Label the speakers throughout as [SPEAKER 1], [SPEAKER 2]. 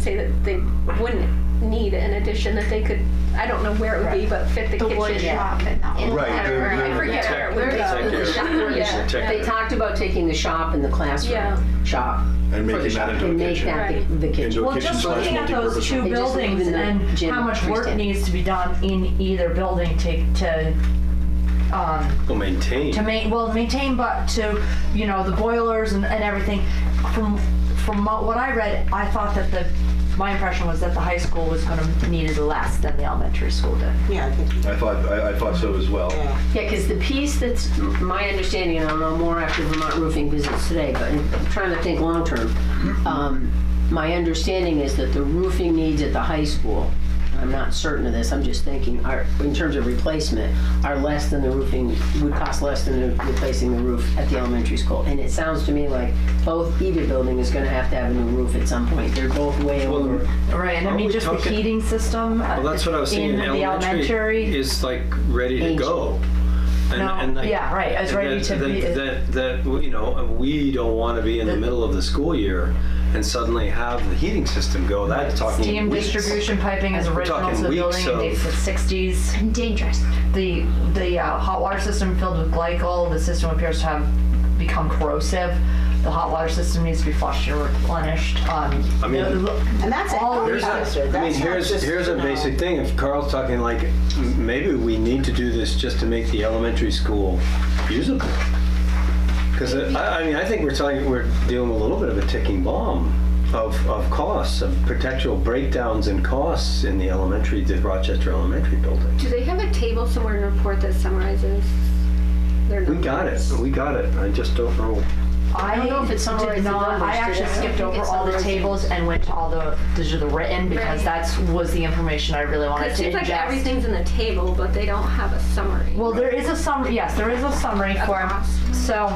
[SPEAKER 1] say that they wouldn't need an addition, that they could, I don't know where it would be, but fit the
[SPEAKER 2] The
[SPEAKER 1] kitchen.
[SPEAKER 2] wood shop and that one.
[SPEAKER 3] Right,
[SPEAKER 1] I
[SPEAKER 3] the-
[SPEAKER 1] don't know.
[SPEAKER 3] the-
[SPEAKER 1] I forget where it
[SPEAKER 3] the
[SPEAKER 1] would
[SPEAKER 3] tech-
[SPEAKER 1] go.
[SPEAKER 3] the tech area.
[SPEAKER 1] Yeah.
[SPEAKER 3] The tech
[SPEAKER 4] They
[SPEAKER 3] area.
[SPEAKER 4] talked about taking the shop and the
[SPEAKER 1] Yeah.
[SPEAKER 4] classroom shop.
[SPEAKER 3] And
[SPEAKER 4] for the
[SPEAKER 3] making
[SPEAKER 4] shop,
[SPEAKER 3] that into a
[SPEAKER 4] and make
[SPEAKER 3] kitchen.
[SPEAKER 4] that the-
[SPEAKER 1] Right.
[SPEAKER 4] the kitchen.
[SPEAKER 3] Into a
[SPEAKER 5] Well,
[SPEAKER 3] kitchen
[SPEAKER 5] just
[SPEAKER 3] slash
[SPEAKER 5] looking at those
[SPEAKER 3] multipurpose
[SPEAKER 5] two
[SPEAKER 3] room.
[SPEAKER 4] They just leave
[SPEAKER 5] buildings
[SPEAKER 4] the
[SPEAKER 5] and
[SPEAKER 4] gym
[SPEAKER 5] how much work
[SPEAKER 4] freestanding.
[SPEAKER 5] needs to be done in either building to, to, um,
[SPEAKER 3] Well, maintain.
[SPEAKER 5] to ma, well, maintain, but to, you know, the boilers and, and everything. From, from what I read, I thought that the, my impression was that the high school was gonna need less than the elementary school did.
[SPEAKER 6] Yeah, I think,
[SPEAKER 3] I thought, I, I thought so as well.
[SPEAKER 6] yeah.
[SPEAKER 4] Yeah, because the piece that's m- my understanding, and I'll know more after Vermont Roofing visits today, but I'm trying to think long term. Um, my understanding is that the roofing needs at the high school, I'm not certain of this, I'm just thinking, are, in terms of replacement, are less than the roofing, would cost less than the- replacing the roof at the elementary school. And it sounds to me like both, either building is gonna have to have a new roof at some point. They're both way
[SPEAKER 7] Well,
[SPEAKER 4] over.
[SPEAKER 5] Right, and I
[SPEAKER 7] Aren't
[SPEAKER 5] mean,
[SPEAKER 7] we
[SPEAKER 5] just the
[SPEAKER 7] talking-
[SPEAKER 5] heating system.
[SPEAKER 7] Well, that's what I was saying.
[SPEAKER 5] In the elementary.
[SPEAKER 7] is like ready to go. And,
[SPEAKER 5] No, yeah, right, it's
[SPEAKER 7] and
[SPEAKER 5] ready
[SPEAKER 7] that,
[SPEAKER 5] to
[SPEAKER 7] that,
[SPEAKER 5] be-
[SPEAKER 7] That, that, you know, we don't want to be in the, middle of the school year and suddenly have the heating system go. That's talking
[SPEAKER 5] Steam
[SPEAKER 7] weeks.
[SPEAKER 5] distribution piping is original to
[SPEAKER 7] talking
[SPEAKER 5] the
[SPEAKER 7] weeks,
[SPEAKER 5] building,
[SPEAKER 7] so-
[SPEAKER 5] I think it's the sixties.
[SPEAKER 2] Dangerous.
[SPEAKER 5] The, the uh, hot water system filled with glycol, the system appears to have become corrosive. The hot water system needs to be flushed and replenished. I
[SPEAKER 7] mean,
[SPEAKER 6] And that's a
[SPEAKER 5] All
[SPEAKER 6] healthy
[SPEAKER 5] these-
[SPEAKER 6] factor.
[SPEAKER 7] I mean,
[SPEAKER 6] That's not
[SPEAKER 7] here's,
[SPEAKER 6] just,
[SPEAKER 7] here's a
[SPEAKER 6] you know,
[SPEAKER 7] basic thing. If Carl's talking like, m- maybe we need to do this just to make the elementary school usable. Because I, I mean, I think we're telling, we're dealing with a little bit of a ticking bomb of, of costs, of potential breakdowns in costs in the elementary, the Rochester Elementary building.
[SPEAKER 1] Do they have a table somewhere in the report that summarizes their
[SPEAKER 7] We got it,
[SPEAKER 1] numbers?
[SPEAKER 7] we got it. I just don't know.
[SPEAKER 5] I
[SPEAKER 4] don't know if it summarizes
[SPEAKER 5] did not,
[SPEAKER 4] numbers,
[SPEAKER 5] I
[SPEAKER 4] did it?
[SPEAKER 5] actually
[SPEAKER 4] I don't think
[SPEAKER 5] skipped
[SPEAKER 4] it
[SPEAKER 5] over all the
[SPEAKER 4] summarizes.
[SPEAKER 5] tables and went to all the, these are the written because
[SPEAKER 1] Right.
[SPEAKER 5] that's, was the information I really wanted
[SPEAKER 1] It
[SPEAKER 5] to
[SPEAKER 1] seems like
[SPEAKER 5] ingest.
[SPEAKER 1] everything's in the table, but they don't have a summary.
[SPEAKER 5] Well, there is a summary, yes, there is a summary for him.
[SPEAKER 1] cost.
[SPEAKER 5] So,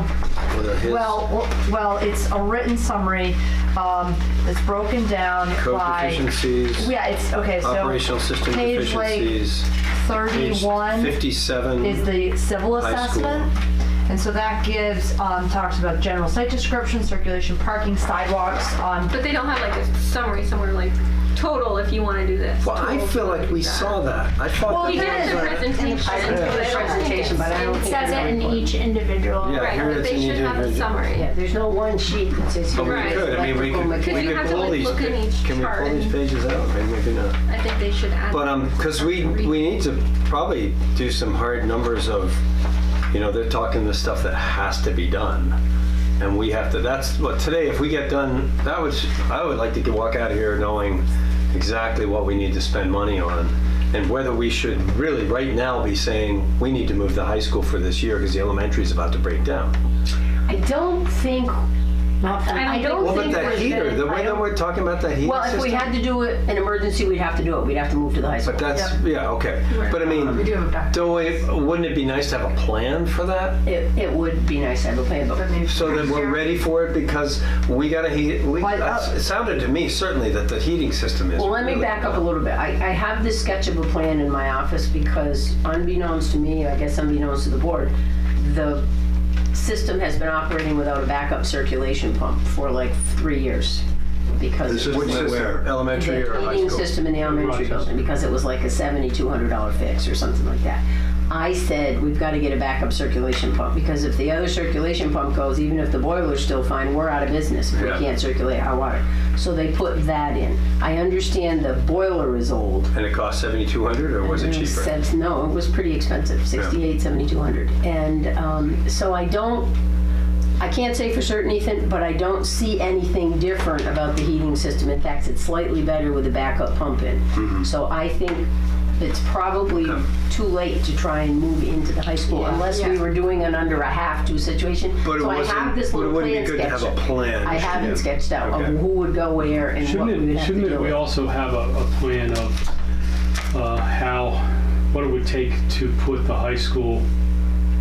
[SPEAKER 7] whether his
[SPEAKER 5] well, w- well, it's a written summary. Um, it's broken down
[SPEAKER 7] Code
[SPEAKER 5] by,
[SPEAKER 7] deficiencies,
[SPEAKER 5] yeah, it's, okay, so
[SPEAKER 7] operational system
[SPEAKER 5] page, like,
[SPEAKER 7] deficiencies. page
[SPEAKER 5] thirty-one
[SPEAKER 7] Fifty-seven.
[SPEAKER 5] is the civil
[SPEAKER 7] High school.
[SPEAKER 5] assessment. And so that gives, um, talks about general site description, circulation, parking, sidewalks, um,
[SPEAKER 1] But they don't have like a summary somewhere like total if you want to do this.
[SPEAKER 7] Well, I
[SPEAKER 1] total if
[SPEAKER 7] feel
[SPEAKER 1] you
[SPEAKER 7] like
[SPEAKER 1] wanna
[SPEAKER 7] we
[SPEAKER 1] do that.
[SPEAKER 7] saw that. I thought
[SPEAKER 5] Well,
[SPEAKER 7] that
[SPEAKER 5] we
[SPEAKER 7] there
[SPEAKER 1] Here's
[SPEAKER 7] was
[SPEAKER 1] the
[SPEAKER 7] a-
[SPEAKER 1] presentation.
[SPEAKER 4] It's a presentation, but I don't
[SPEAKER 2] It
[SPEAKER 4] think.
[SPEAKER 2] says it
[SPEAKER 4] it's-
[SPEAKER 2] in each individual.
[SPEAKER 7] Yeah.
[SPEAKER 1] Right,
[SPEAKER 7] here
[SPEAKER 1] but
[SPEAKER 7] it's
[SPEAKER 1] they
[SPEAKER 7] an
[SPEAKER 1] should have a
[SPEAKER 7] individual-
[SPEAKER 1] summary.
[SPEAKER 4] Yeah, there's no one sheet that says.
[SPEAKER 7] But we
[SPEAKER 1] Right.
[SPEAKER 7] could, I mean, we
[SPEAKER 4] electrical,
[SPEAKER 7] could,
[SPEAKER 1] Because
[SPEAKER 7] we
[SPEAKER 1] you have
[SPEAKER 7] could
[SPEAKER 1] to,
[SPEAKER 7] pull
[SPEAKER 1] like,
[SPEAKER 7] these,
[SPEAKER 1] look in each
[SPEAKER 7] can we
[SPEAKER 1] chart
[SPEAKER 7] pull these
[SPEAKER 1] and-
[SPEAKER 7] pages out? Maybe we can, uh,
[SPEAKER 1] I think they should add.
[SPEAKER 7] But, um, because we, we need to probably do some hard numbers of, you know, they're talking the stuff that has to be done. And we have to, that's what, today, if we get done, that would, I would like to get- walk out of here knowing exactly what we need to spend money on. And whether we should really, right now, be saying, we need to move the high school for this year because the elementary is about to break down.
[SPEAKER 4] I don't think, I don't
[SPEAKER 7] What about
[SPEAKER 4] think.
[SPEAKER 7] that
[SPEAKER 4] we're
[SPEAKER 7] heater?
[SPEAKER 4] gonna-
[SPEAKER 7] The
[SPEAKER 4] I
[SPEAKER 7] way that
[SPEAKER 4] don't-
[SPEAKER 7] we're talking about that heating
[SPEAKER 4] Well, if we
[SPEAKER 7] system?
[SPEAKER 4] had to do it, an emergency, we'd have to do it. We'd have to move to the high school.
[SPEAKER 7] But that's, yeah, okay. But I mean,
[SPEAKER 5] do have a back.
[SPEAKER 7] don't we, wouldn't it be nice to have a plan for that?
[SPEAKER 4] It, it would be nice to have a plan, but
[SPEAKER 7] So that we're ready for it because we gotta heat, we,
[SPEAKER 5] Why-
[SPEAKER 7] that's- it sounded to me certainly that the heating system is.
[SPEAKER 4] uh, Well, let me
[SPEAKER 7] really-
[SPEAKER 4] back up a little bit. I, I have this sketch of a plan in my office because unbeknownst to me, I guess unbeknownst to the board, the system has been operating without a backup circulation pump for like three years. Because.
[SPEAKER 3] This
[SPEAKER 4] it
[SPEAKER 3] is
[SPEAKER 4] was-
[SPEAKER 7] Which
[SPEAKER 3] Where-
[SPEAKER 7] system,
[SPEAKER 3] where?
[SPEAKER 7] elementary or
[SPEAKER 4] the
[SPEAKER 7] high
[SPEAKER 4] heating
[SPEAKER 7] school?
[SPEAKER 4] system in the elementary building because it was like a seventy-two hundred dollar fix or something like that. I said, we've got to get a backup circulation pump because if the other circulation pump goes, even if the boiler's still fine, we're out of business. We
[SPEAKER 7] Yeah.
[SPEAKER 4] can't circulate hot water. So they put that in. I understand the boiler is old.
[SPEAKER 7] And it cost seventy-two hundred or was it
[SPEAKER 4] And
[SPEAKER 7] cheaper?
[SPEAKER 4] said- no, it was pretty expensive, 68, 7,200. And um, so I don't, I can't say for certain, Ethan, but I don't see anything different about the heating system. In fact, it's slightly better with a backup pump in. So I think it's probably
[SPEAKER 7] Mm-hmm. Okay.
[SPEAKER 4] too late to try and move into the high school unless we were doing an under a half to situation.
[SPEAKER 7] But it
[SPEAKER 4] So I
[SPEAKER 7] wasn't-
[SPEAKER 4] have this
[SPEAKER 7] but it
[SPEAKER 4] little
[SPEAKER 7] wouldn't be
[SPEAKER 4] plan
[SPEAKER 7] good to have a
[SPEAKER 4] sketched.
[SPEAKER 7] plan.
[SPEAKER 4] I haven't sketched out
[SPEAKER 7] Okay.
[SPEAKER 4] of who would go where and what
[SPEAKER 8] Shouldn't
[SPEAKER 4] we would
[SPEAKER 8] it,
[SPEAKER 4] have to
[SPEAKER 8] shouldn't
[SPEAKER 4] deal
[SPEAKER 8] it, we
[SPEAKER 4] with.
[SPEAKER 8] also have a, a plan of uh, how, what it would take to put the high school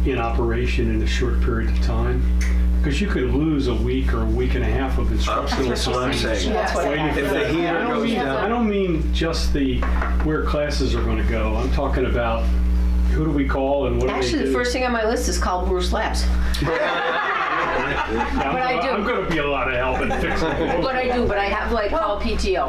[SPEAKER 8] in operation in a short period of time? Because you could lose a week or a week and a half of instructional
[SPEAKER 7] That's what I'm
[SPEAKER 8] time.
[SPEAKER 7] saying.
[SPEAKER 4] That's what I
[SPEAKER 8] waiting
[SPEAKER 4] have.
[SPEAKER 8] for
[SPEAKER 7] If the
[SPEAKER 8] that.
[SPEAKER 7] heater
[SPEAKER 8] I don't
[SPEAKER 7] goes
[SPEAKER 8] mean-
[SPEAKER 7] down-
[SPEAKER 8] I don't mean just the, where classes are gonna go, I'm talking about who do we call and what do they do?
[SPEAKER 4] Actually, the first thing on my list is call Bruce Labs.
[SPEAKER 8] I'm
[SPEAKER 4] what I
[SPEAKER 8] gonna-
[SPEAKER 4] do-
[SPEAKER 8] I'm gonna be a lot of help in fixing it.
[SPEAKER 4] But I do, but I have like call PTO.